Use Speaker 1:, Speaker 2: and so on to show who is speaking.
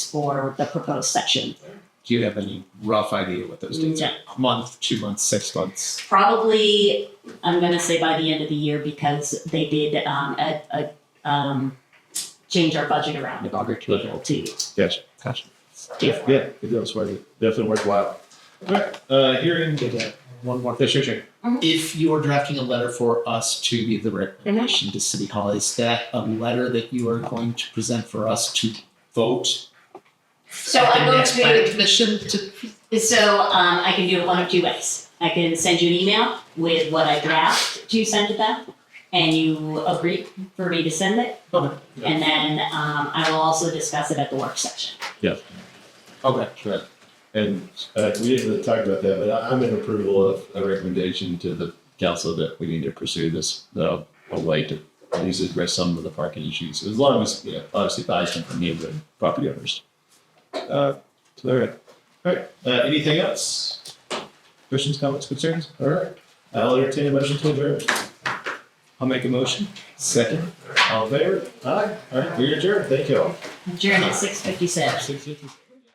Speaker 1: for the proposed section.
Speaker 2: Do you have any rough idea what those dates
Speaker 1: No.
Speaker 2: are? A month, two months, six months?
Speaker 1: Probably, I'm going to say by the end of the year because they did um, a, a, um, change our budget around in order to be able to
Speaker 3: Yes. Gotcha.
Speaker 1: do it.
Speaker 3: Yeah, it does worth it. Definitely worthwhile. All right, uh, hearing.
Speaker 2: One more question. Sure, sure. If you are drafting a letter for us to be the recommendation to City Hall, is that a letter that you are going to present for us to vote?
Speaker 1: So
Speaker 2: at the
Speaker 1: I'm going
Speaker 2: next planning
Speaker 1: to,
Speaker 2: Commission to.
Speaker 1: so um, I can do it one of two ways. I can send you an email with what I draft to send to them, and you agree for me to send it.
Speaker 2: Okay.
Speaker 1: And then um, I will also discuss it at the work session.
Speaker 2: Okay.
Speaker 3: Right. And uh, we didn't really talk about that, but I- I'm in approval of a recommendation to the council that we need to pursue this, uh, a way to at least address some of the parking issues, as long as, you know, obviously buys from the neighborhood property owners. Uh, so, all right. All right, uh, anything else? Questions, comments, concerns? All right. I'll entertain a motion to adjourn. I'll make a motion. Second. All in favor? Aye. All right, we adjourn. Thank you all.
Speaker 1: Adjourn at six fifty-six.
Speaker 3: Six fifty.